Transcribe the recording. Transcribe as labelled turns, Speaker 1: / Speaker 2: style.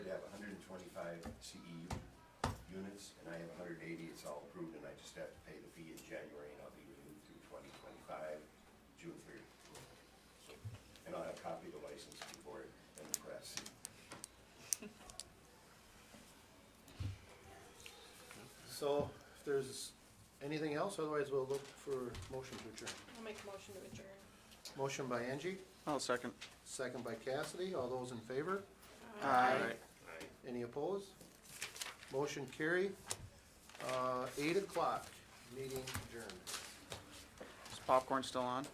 Speaker 1: twenty-five CEU units, and I have hundred eighty, it's all approved, and I just have to pay the fee in January, and I'll be renewed through twenty twenty-five, June thirty. And I'll have a copy of the license before it and the press.
Speaker 2: So if there's anything else, otherwise we'll look for motion to adjourn.
Speaker 3: I'll make a motion to adjourn.
Speaker 2: Motion by Angie,
Speaker 4: I'll second.
Speaker 2: second by Cassidy. All those in favor?
Speaker 4: Aye.
Speaker 2: Any opposed? Motion carry. Uh, eight o'clock, meeting adjourned.
Speaker 4: Is popcorn still on?